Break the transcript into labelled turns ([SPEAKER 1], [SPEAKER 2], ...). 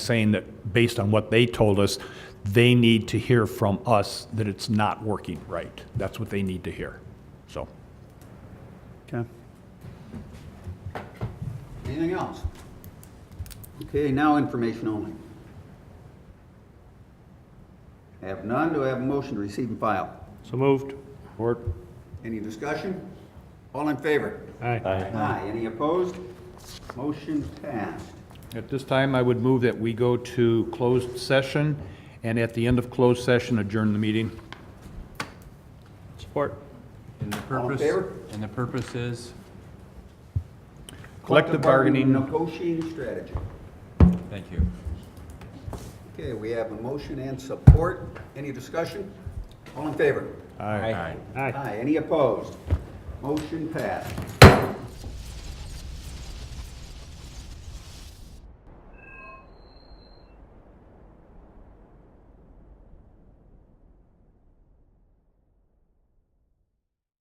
[SPEAKER 1] saying that based on what they told us, they need to hear from us that it's not working right. That's what they need to hear. So,
[SPEAKER 2] Okay.
[SPEAKER 3] Anything else? Okay, now information only. I have none, do I have a motion to receive and file?
[SPEAKER 2] So moved.
[SPEAKER 3] Any discussion? All in favor?
[SPEAKER 2] Aye.
[SPEAKER 3] Aye, any opposed? Motion passed.
[SPEAKER 1] at this time, I would move that we go to closed session, and at the end of closed session, adjourn the meeting.
[SPEAKER 2] Support.
[SPEAKER 4] And the
[SPEAKER 3] All in
[SPEAKER 4] purpose,
[SPEAKER 3] favor?
[SPEAKER 4] and the purpose is,
[SPEAKER 1] Collective bargaining,
[SPEAKER 3] Negotiating strategy.
[SPEAKER 4] thank you.
[SPEAKER 3] Okay, we have a motion and support, any discussion? All in favor?
[SPEAKER 4] Aye.
[SPEAKER 2] Aye.
[SPEAKER 3] Aye, any opposed? Motion passed.